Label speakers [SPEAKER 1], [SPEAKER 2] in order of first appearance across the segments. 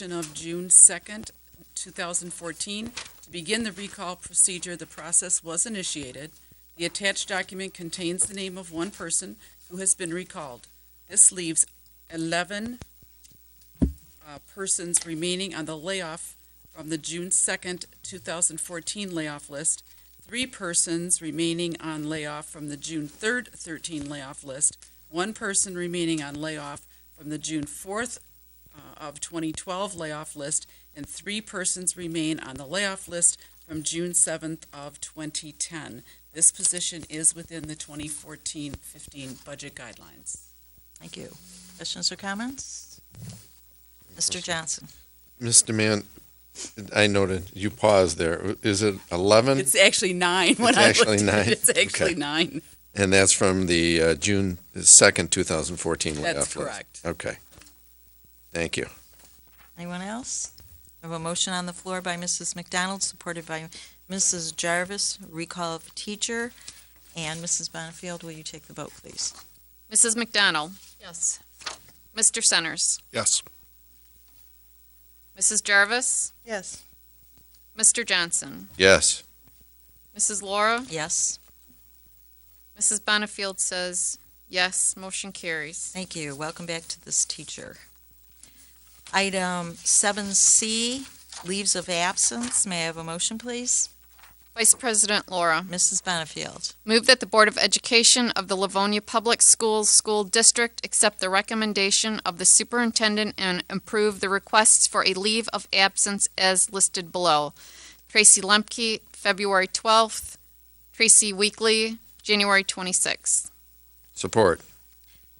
[SPEAKER 1] of June 2nd, 2014. To begin the recall procedure, the process was initiated. The attached document contains the name of one person who has been recalled. This leaves 11 uh, persons remaining on the layoff from the June 2nd, 2014 layoff list, three persons remaining on layoff from the June 3rd, 13 layoff list, one person remaining on layoff from the June 4th uh, of 2012 layoff list, and three persons remain on the layoff list from June 7th of 2010. This position is within the 2014-15 budget guidelines.
[SPEAKER 2] Thank you. Questions or comments? Mr. Johnson?
[SPEAKER 3] Mr. Mann, I noted you paused there. Is it 11?
[SPEAKER 1] It's actually nine when
[SPEAKER 3] It's
[SPEAKER 1] I
[SPEAKER 3] actually
[SPEAKER 1] looked at
[SPEAKER 3] nine?
[SPEAKER 1] it. It's actually
[SPEAKER 3] Okay.
[SPEAKER 1] nine.
[SPEAKER 3] And that's from the uh, June 2nd, 2014 layoff
[SPEAKER 1] That's
[SPEAKER 3] list?
[SPEAKER 1] correct.
[SPEAKER 3] Okay. Thank you.
[SPEAKER 2] Anyone else? I have a motion on the floor by Mrs. McDonald, supported by Mrs. Jarvis, recall of teacher. And Mrs. Bonnefield, will you take the vote, please?
[SPEAKER 4] Mrs. McDonald? Yes. Mr. Centers?
[SPEAKER 5] Yes.
[SPEAKER 4] Mrs. Jarvis?
[SPEAKER 2] Yes.
[SPEAKER 4] Mr. Johnson?
[SPEAKER 3] Yes.
[SPEAKER 4] Mrs. Laura?
[SPEAKER 2] Yes,
[SPEAKER 4] Mrs. Bonnefield says yes. Motion carries.
[SPEAKER 2] thank you. Welcome back to this teacher. Item seven C, leaves of absence. May I have a motion, please?
[SPEAKER 4] Vice President Laura,
[SPEAKER 2] Mrs. Bonnefield.
[SPEAKER 4] move that the Board of Education of the Livonia Public Schools School District accept the recommendation of the superintendent and approve the requests for a leave of absence as listed below. Tracy Lemke, February 12th. Tracy Weekly, January 26th.
[SPEAKER 3] Support.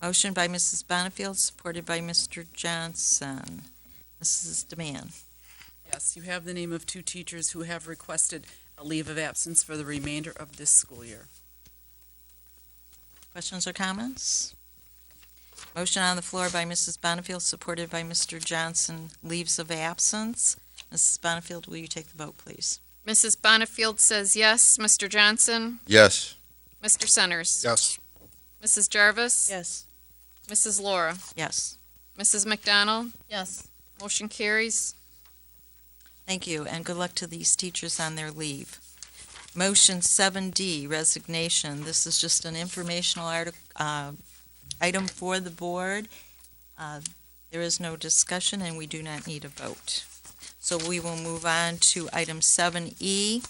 [SPEAKER 2] Motion by Mrs. Bonnefield, supported by Mr. Johnson. Mrs. Demand.
[SPEAKER 1] Yes, you have the name of two teachers who have requested a leave of absence for the remainder of this school year.
[SPEAKER 2] Questions or comments? Motion on the floor by Mrs. Bonnefield, supported by Mr. Johnson, leaves of absence. Mrs. Bonnefield, will you take the vote, please?
[SPEAKER 4] Mrs. Bonnefield says yes. Mr. Johnson?
[SPEAKER 3] Yes.
[SPEAKER 4] Mr. Centers?
[SPEAKER 5] Yes.
[SPEAKER 4] Mrs. Jarvis?
[SPEAKER 2] Yes.
[SPEAKER 4] Mrs. Laura?
[SPEAKER 2] Yes.
[SPEAKER 4] Mrs. McDonald? Yes. Motion carries.
[SPEAKER 2] Thank you, and good luck to these teachers on their leave. Motion 7D, resignation. This is just an informational artic- uh, item for the board. Uh, There is no discussion, and we do not need a vote. So we will move on to item 7E,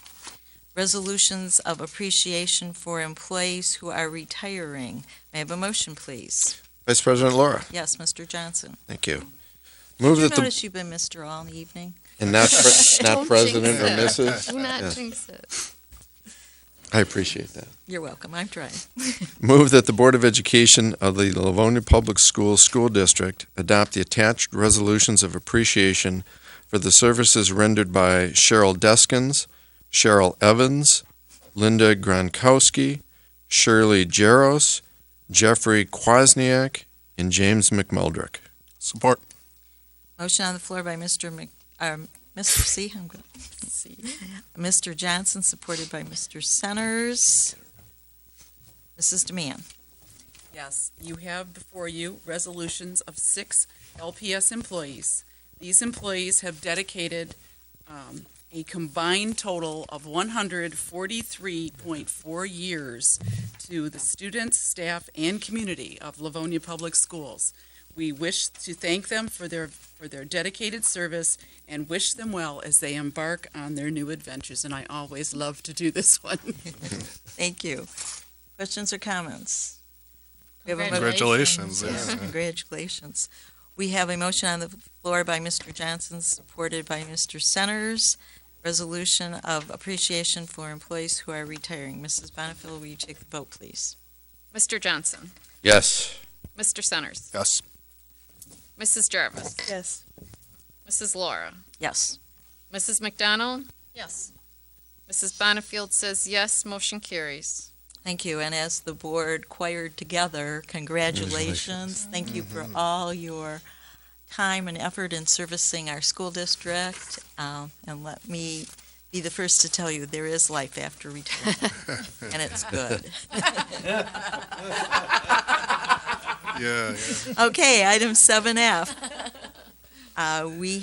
[SPEAKER 2] resolutions of appreciation for employees who are retiring. May I have a motion, please?
[SPEAKER 3] Vice President Laura,
[SPEAKER 2] Yes, Mr. Johnson.
[SPEAKER 3] thank you.
[SPEAKER 2] Did
[SPEAKER 3] Move that
[SPEAKER 2] you
[SPEAKER 3] the,
[SPEAKER 2] notice you've been Mr. all evening?
[SPEAKER 3] and not, pre-
[SPEAKER 4] Don't
[SPEAKER 3] not President or
[SPEAKER 4] jinx
[SPEAKER 3] Mrs.?
[SPEAKER 4] Do not
[SPEAKER 3] Yes.
[SPEAKER 4] jinx it.
[SPEAKER 3] I appreciate that.
[SPEAKER 2] You're welcome, I'm trying.
[SPEAKER 3] Move that the Board of Education of the Livonia Public Schools School District adopt the attached resolutions of appreciation for the services rendered by Cheryl Deskins, Cheryl Evans, Linda Gronkowski, Shirley Jaros, Jeffrey Kwasniak, and James McMeldrick.
[SPEAKER 5] Support.
[SPEAKER 2] Motion on the floor by Mr. Mc, um, Mr. C, I'm going, Mr. Johnson, supported by Mr. Centers. Mrs. Demand.
[SPEAKER 1] Yes, you have before you resolutions of six LPS employees. These employees have dedicated um, a combined total of 143.4 years to the students, staff, and community of Livonia Public Schools. We wish to thank them for their, for their dedicated service and wish them well as they embark on their new adventures, and I always love to do this one.
[SPEAKER 2] Thank you. Questions or comments? We have a mo-
[SPEAKER 5] Congratulations.
[SPEAKER 2] Yes, Congratulations. We have a motion on the floor by Mr. Johnson, supported by Mr. Centers. Resolution of appreciation for employees who are retiring. Mrs. Bonnefield, will you take the vote, please?
[SPEAKER 4] Mr. Johnson?
[SPEAKER 3] Yes.
[SPEAKER 4] Mr. Centers?
[SPEAKER 5] Yes.
[SPEAKER 4] Mrs. Jarvis?
[SPEAKER 2] Yes.
[SPEAKER 4] Mrs. Laura?
[SPEAKER 2] Yes.
[SPEAKER 4] Mrs. McDonald? Yes. Mrs. Bonnefield says yes. Motion carries.
[SPEAKER 2] Thank you, and as the board choired together, congratulations. Thank you for all your time and effort in servicing our school district. Um, And let me be the first to tell you, there is life after retirement, and it's good.
[SPEAKER 5] Yeah, yeah.
[SPEAKER 2] Okay, item seven F. Uh, We